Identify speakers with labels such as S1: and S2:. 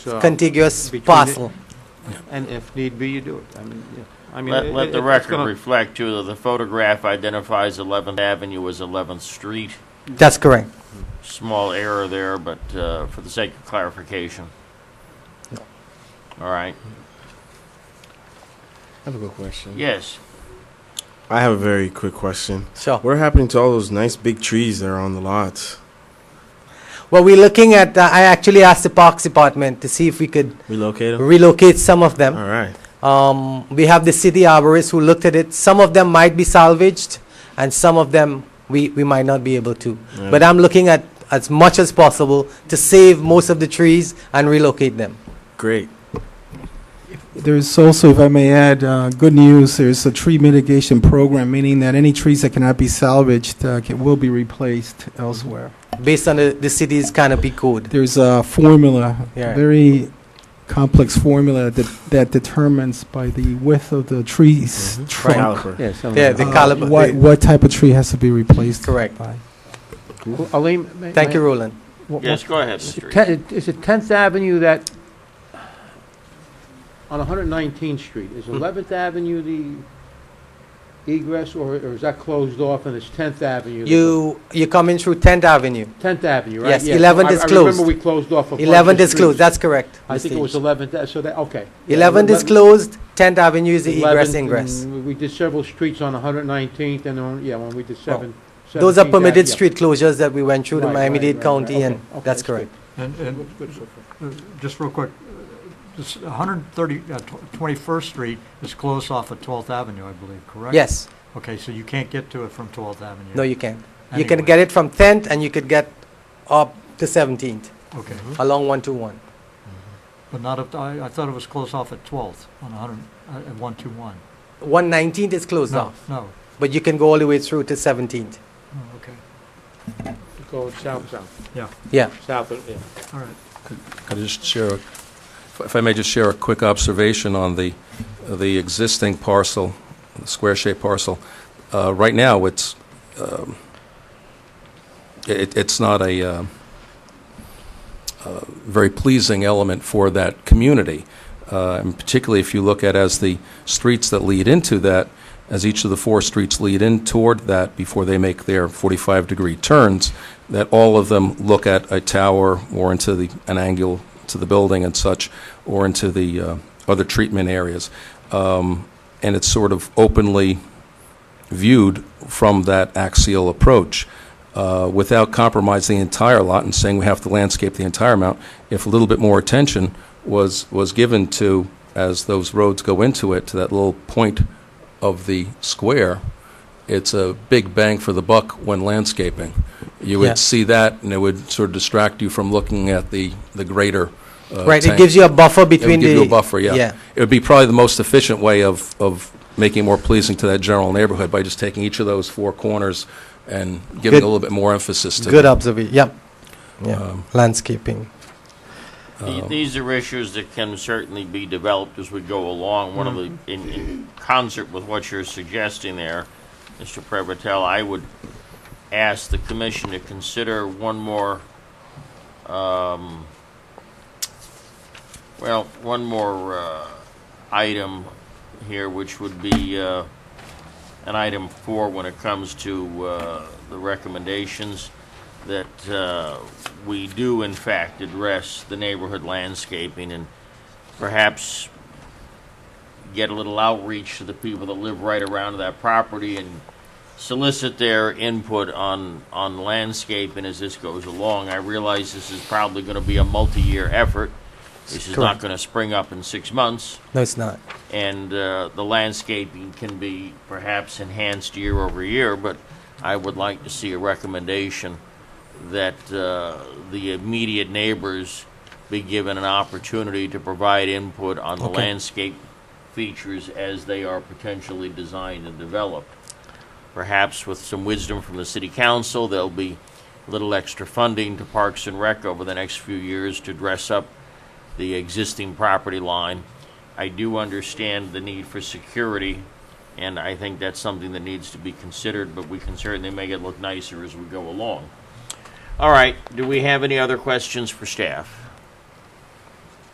S1: uh,
S2: contiguous
S1: between it-
S2: parcel.
S1: And if need be, you do it. I mean, yeah. I mean,
S3: Let,
S1: it-
S3: let
S1: it-
S3: the
S1: it's
S3: record
S1: gonna-
S3: reflect too that the photograph identifies 11th Avenue as 11th Street.
S2: That's correct.
S3: Small error there, but uh, for the sake of clarification. All right,
S4: I have a good question.
S3: yes.
S4: I have a very quick question.
S2: Sure.
S4: What happened to all those nice big trees that are on the lots?
S2: Well, we're looking at, uh, I actually asked the Parks Department to see if we could
S4: Relocate them?
S2: relocate some of
S4: All
S2: them.
S4: right.
S2: Um, we have the city arborist who looked at it. Some of them might be salvaged, and some of them we, we might not be able to. But I'm looking at as much as possible to save most of the trees and relocate them.
S4: Great.
S5: There's also, if I may add, uh, good news, there's a tree mitigation program, meaning that any trees that cannot be salvaged uh, can- will be replaced elsewhere.
S2: based on the, the city's canopy code.
S5: There's a formula,
S2: Yeah.
S5: a very complex formula that that determines by the width of the tree's
S4: Mhm.
S5: trunk,
S4: Caliper.
S1: Yeah, some-
S2: Yeah, Mm-hmm. the
S5: uh,
S2: caliber-
S5: what
S2: the-
S5: what type of tree has to be replaced.
S2: Correct.
S5: by.
S1: Well, Aleem, may-
S2: Thank you,
S1: may-
S2: Roland.
S1: what-
S3: Yes, go ahead,
S1: what's-
S3: Mr. East.
S1: Ten- Is it 10th Avenue that, on 119th Street, is 11th Avenue the egress, or or is that closed off and it's 10th Avenue? that-
S2: You, you're coming through 10th Avenue.
S1: 10th Avenue, right?
S2: Yes,
S1: Yeah, so
S2: 11th
S1: I-
S2: is
S1: I
S2: closed.
S1: remember we closed off a bunch of
S2: 11th is closed,
S1: streets.
S2: that's correct.
S1: Oh, I think it was 11th, uh, so that, okay. Yeah,
S2: 11th is
S1: 11th
S2: closed, 10th Avenue is the egress
S1: 11th,
S2: ingress.
S1: and We did several streets on 119th and on, yeah, when we did 7.
S2: Oh, Those are
S1: 17th,
S2: permitted
S1: yeah.
S2: street closures that we went through in
S1: Right, right,
S2: Miami-Dade
S1: right,
S2: County
S1: right.
S2: and
S1: Okay, okay,
S2: that's
S1: that's good.
S2: correct.
S6: And, and uh, just real quick, uh, this 130, uh, tw- 21st Street is closed off of 12th Avenue, I believe, correct?
S2: Yes,
S6: Okay, so you can't get to it from 12th Avenue?
S2: no, you can. You can
S6: Anyway.
S2: get it from 10th and you could get up to 17th
S6: Okay,
S2: along 121.
S6: but not up, to- I, I thought it was closed off at 12th on 100, uh, at 121.
S2: 119th is closed
S6: No,
S2: off,
S6: no,
S2: but you can go all the way through to 17th.
S6: Oh, okay,
S1: Go south, south,
S6: yeah,
S2: Yeah,
S1: south, of- yeah.
S6: all right.
S7: Could I just share, a- if I may just share a quick observation on the, the existing parcel, the square-shaped parcel? Uh, Right now, it's, um, it, it's not a um, uh, very pleasing element for that community. Uh, And particularly if you look at as the streets that lead into that, as each of the four streets lead in toward that before they make their 45-degree turns, that all of them look at a tower or into the, an angle to the building and such, or into the uh, other treatment areas. Um, And it's sort of openly viewed from that axial approach uh, without compromising the entire lot and saying we have to landscape the entire amount. If a little bit more attention was, was given to, as those roads go into it, to that little point of the square, it's a big bang for the buck when landscaping.
S2: Yeah.
S7: You would see that, and it would sort of distract you from looking at the, the greater. uh,
S2: right, it
S7: tank.
S2: gives you a buffer
S7: It would
S2: between the.
S7: give you a buffer, yeah.
S2: Yeah,
S7: It would be probably the most efficient way of, of making it more pleasing to that general neighborhood by just taking each of those four corners and giving
S2: Good-
S7: a Um, little bit more emphasis to
S2: good
S7: them.
S2: observation, yep. Yeah, landscaping.
S3: The- These are issues that can certainly be developed as we go along. One of the, in, in concert with what you're suggesting there, Mr. Prevotell, I would ask the commission to consider one more, um, well, one more, uh, item here, which would be, uh, an item four when it comes to, uh, the recommendations that uh, we do in fact address the neighborhood landscaping and perhaps get a little outreach to the people that live right around that property and solicit their input on, on landscaping as this goes along. I realize this is probably going to be a multi-year effort. This is not
S2: Correct.
S3: going to spring up in six months
S2: No, it's not.
S3: and uh, the landscaping can be perhaps enhanced year over year, but I would like to see a recommendation that uh, the immediate neighbors be given an opportunity to provide input on the
S2: Okay.
S3: landscape features as they are potentially designed and developed. Perhaps with some wisdom from the city council, there'll be little extra funding to Parks and Rec over the next few years to dress up the existing property line. I do understand the need for security, and I think that's something that needs to be considered, but we can certainly make it look nicer as we go along. All right, do we have any other questions for staff?